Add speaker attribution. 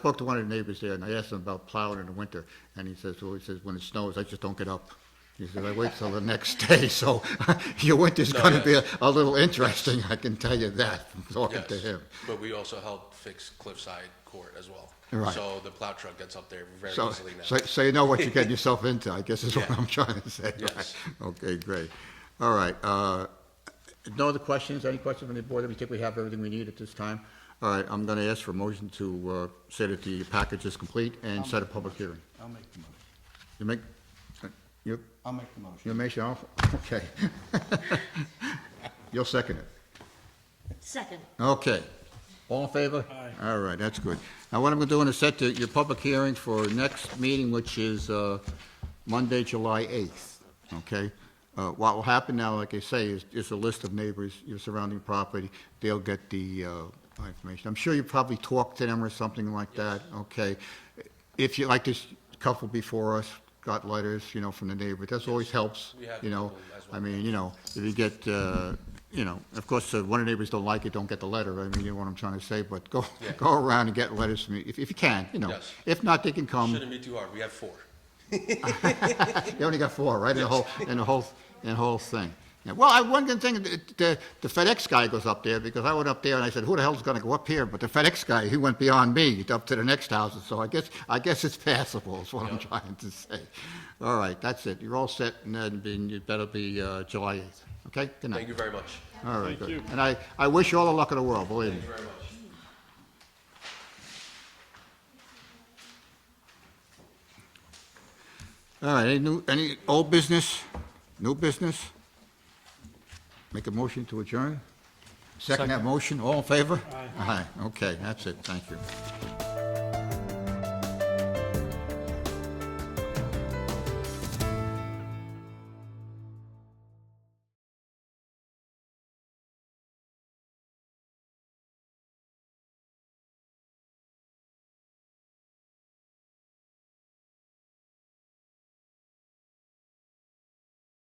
Speaker 1: Talked to one of the neighbors there, and I asked him about plowing in the winter, and he says, well, he says, when it snows, I just don't get up. He says, I wait till the next day, so your winter's
Speaker 2: No,
Speaker 1: gonna be a
Speaker 2: yes.
Speaker 1: a little interesting, I can tell you that, from talking
Speaker 2: Yes,
Speaker 1: to him.
Speaker 2: But we also help fix Cliffside Court as well.
Speaker 1: Right.
Speaker 2: So the plow truck gets up there very
Speaker 1: So,
Speaker 2: easily now.
Speaker 1: so, so you know what you're getting yourself into, I guess is what
Speaker 2: Yeah.
Speaker 1: I'm trying to say.
Speaker 2: Yes.
Speaker 1: right? Okay, great. All right, uh, no other questions? Any questions from the board? We think we have everything we need at this time. All right, I'm gonna ask for a motion to, uh, say that the package is complete and set a public hearing.
Speaker 3: I'll make the motion.
Speaker 1: You make, you,
Speaker 3: I'll make the motion.
Speaker 1: you make, your own- okay. You'll second it.
Speaker 4: Second.
Speaker 1: Okay. All in favor? Aye. All right, that's good. Now, what I'm going to do is set the- your public hearing for next meeting, which is uh, Monday, July 8th, okay? Uh, What will happen now, like I say, is is a list of neighbors, your surrounding property. They'll get the uh, information. I'm sure you probably talked to them or something like that, okay? If you, like this couple before us, got letters, you know, from the neighbor. That always helps,
Speaker 2: We have
Speaker 1: you know?
Speaker 2: people as well.
Speaker 1: I mean, I mean, you know, if you get, uh, you know, of course, uh, one of the neighbors don't like it, don't get the letter, I mean, you know what I'm trying to say, but go,
Speaker 2: Yeah.
Speaker 1: go around and get letters from, you- if, if you can, you know.
Speaker 2: Yes.
Speaker 1: If not, they can come,
Speaker 2: Shouldn't be too hard. We have four.
Speaker 1: you only got four, right, in the whole, in the whole, in the whole thing. Yeah, Well, I, one good thing, the- the, the FedEx guy goes up there, because I went up there and I said, who the hell's gonna go up here? But the FedEx guy, he went beyond me, up to the next house, so I guess, I guess it's passable, is what I'm trying to say. All right, that's it, you're all set, and then being- you better be, uh, July eighth, okay? Good night.
Speaker 2: Thank you very much.
Speaker 1: All right, good. And I, I wish you all the luck in the world, believe me.
Speaker 2: Thank you very much.
Speaker 1: All right, any new, any old business, new business? Make a motion to adjourn? Second that motion, all in favor? Aye. okay, that's it, thank you.